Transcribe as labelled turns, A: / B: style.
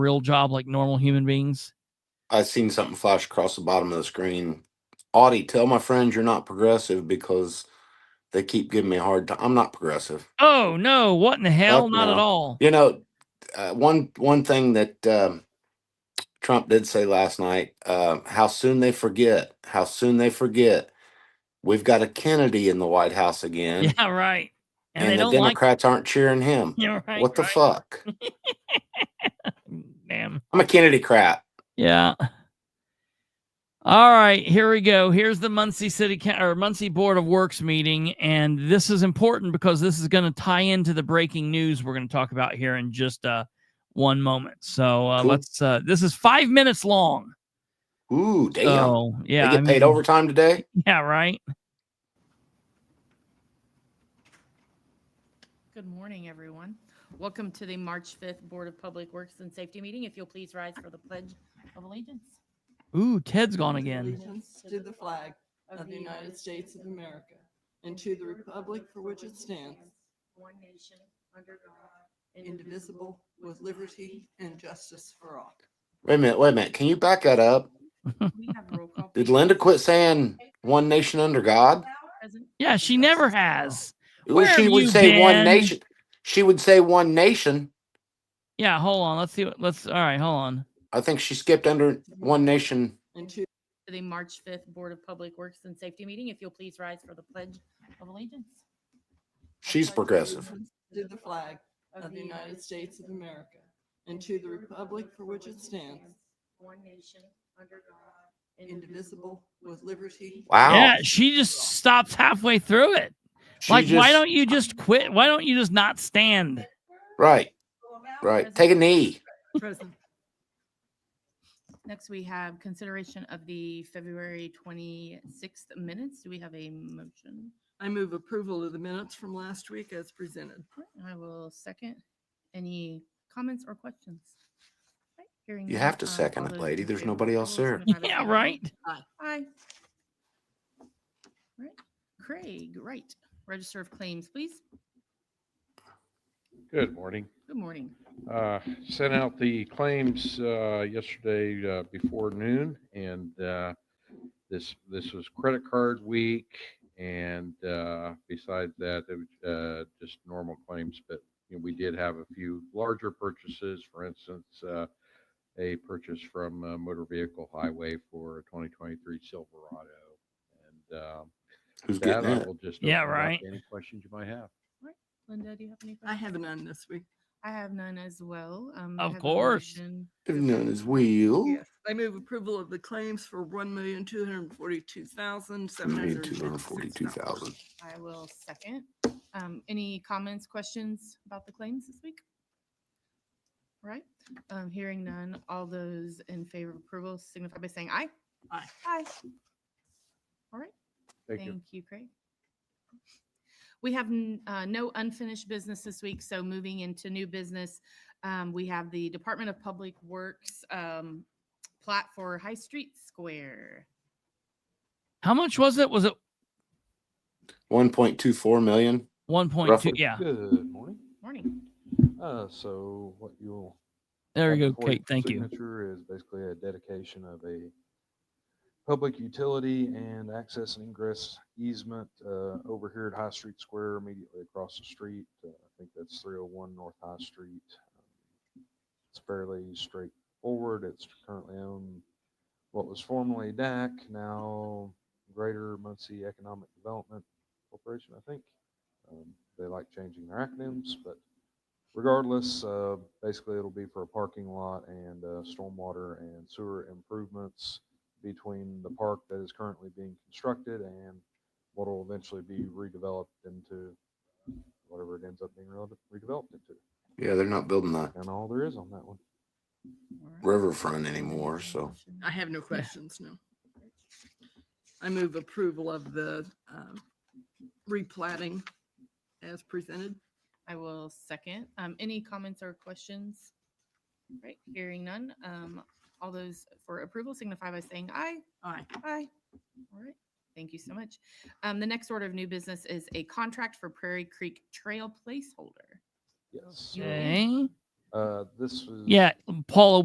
A: real job like normal human beings?
B: I seen something flash across the bottom of the screen. Audie, tell my friends you're not progressive because they keep giving me a hard time. I'm not progressive.
A: Oh no! What in the hell?
B: Fuck
A: Not at
B: no.
A: all.
B: You know, uh, one one thing that um, Trump did say last night: uh, how soon they forget, how soon they forget. We've got a Kennedy in the White House again,
A: Yeah, right. And,
B: and,
A: they
B: the
A: don't like.
B: Democrats aren't cheering him.
A: Yeah, right.
B: what the
A: right.
B: fuck?
A: Damn.
B: I'm a Kennedy crap.
A: Yeah. All right, here we go. Here's the Muncie City Coun- or Muncie Board of Works meeting, and this is important because this is going to tie into the breaking news we're going to talk about here in just uh, one moment. So uh,
B: Cool.
A: let's. Uh, this is five minutes long.
B: Ooh, damn!
A: So
B: they
A: Oh, yeah,
B: get
A: I
B: paid
A: mean,
B: overtime today.
A: Yeah, right.
C: Good morning, everyone. Welcome to the March 5th Board of Public Works and Safety meeting. If you'll please rise for the Pledge of Allegiance.
A: Ooh, Ted's gone
D: pledge
A: again.
D: allegiance To the flag of the United States of America and to the republic for which it stands,
C: one nation, under God,
D: indivisible, with liberty and justice for all.
B: Wait a minute, wait a minute. Can you back that up?
C: We have roll call.
B: Did Linda quit saying "One Nation under God"?
C: Present.
A: Yeah, she never has.
B: Well,
A: Where
B: she
A: have
B: would
A: you
B: say one
A: been?
B: nation. She would say one nation.
A: Yeah, hold on. Let's see. What, let's. All right, hold on.
B: I think she skipped under one nation.
D: And to
C: To the March 5th Board of Public Works and Safety meeting. If you'll please rise for the Pledge of Allegiance.
B: She's progressive.
D: allegiance To the flag of the United States of America and to the republic for which it stands,
C: One nation, under God,
D: indivisible, with liberty.
B: Wow.
A: Yeah, she just stops halfway through it.
B: She
A: like, why
B: just-
A: don't you just quit? Why don't you just not stand?
B: Right, right. Take a knee.
C: Present. Next, we have consideration of the February 26th minutes. Do we have a motion?
D: I move approval of the minutes from last week as presented.
C: I will second. Any comments or questions? Right, hearing
B: You
C: none,
B: have to
C: um,
B: second
C: all
B: it,
C: those
B: lady.
C: in
B: There's
C: favor of
B: nobody else
C: approval
B: there.
C: signify by
A: Yeah,
C: saying
A: right.
C: Aye. Right. Craig, right. Register of claims, please.
E: Good morning.
C: Good morning.
E: Uh, Sent out the claims uh, yesterday uh, before noon, and uh, this, this was credit card week. And uh, besides that, it was uh, just normal claims, but you know, we did have a few larger purchases. For instance, uh, a purchase from uh, Motor Vehicle Highway for a 2023 Silverado. And um,
B: Who's
E: that
B: getting
E: I
B: that?
E: will just.
A: Yeah,
E: open it up to
A: right.
E: Any questions you might have.
C: Linda, do you have any?
D: I
C: questions?
D: have none this week.
C: I have none as well. Um, I
A: Of
C: have a
A: course.
C: motion.
B: Known as Will.
D: Yes, I move approval of the claims for one million, two hundred and forty-two thousand, seven hundred
B: Two hundred forty-two thousand.
C: I will second. Um, any comments, questions about the claims this week? All Right, um, hearing none, all those in favor of approval signify by saying aye.
D: Aye.
C: Aye. All right,
E: Thank you.
C: thank you, Craig. We have, n- uh, no unfinished business this week, so moving into new business, um, we have the Department of Public Works, um, plat for High Street Square.
A: How much was it? Was it
B: One point two four million.
A: 1.2?
B: Roughly.
A: Yeah.
E: Good morning.
C: Morning.
E: Uh, so what you'll.
A: There you
E: have
A: go,
E: before your
A: Kate. Thank you.
E: Signature is basically a dedication of a public utility and access and ingress easement, uh, over here at High Street Square, immediately across the street. Uh, I think that's three oh one North High Street. It's fairly straightforward. It's currently owned, what was formerly DAC, now Greater Muncie Economic Development Corporation, I think. Um, They like changing their acronyms, but regardless, uh, basically it'll be for a parking lot and uh, stormwater and sewer improvements between the park that is currently being constructed and what will eventually be redeveloped into whatever it ends up being rede- redeveloped into.
B: Yeah, they're not building the
E: And all there is on that one.
C: All right.
B: riverfront anymore,
C: Any
B: so
C: motion?
D: I have no questions, no. I move approval of the um, replatting as presented.
C: I will second. Um, any comments or questions? Right, hearing none. Um, all those for approval signify by saying aye.
D: Aye.
C: Aye. All right, thank you so much. Um, the next order of new business is a contract for Prairie Creek Trail placeholder.
E: Yes.
C: Yeah.
E: uh,
A: Okay.
F: Uh, this was.
E: Yeah, Paula,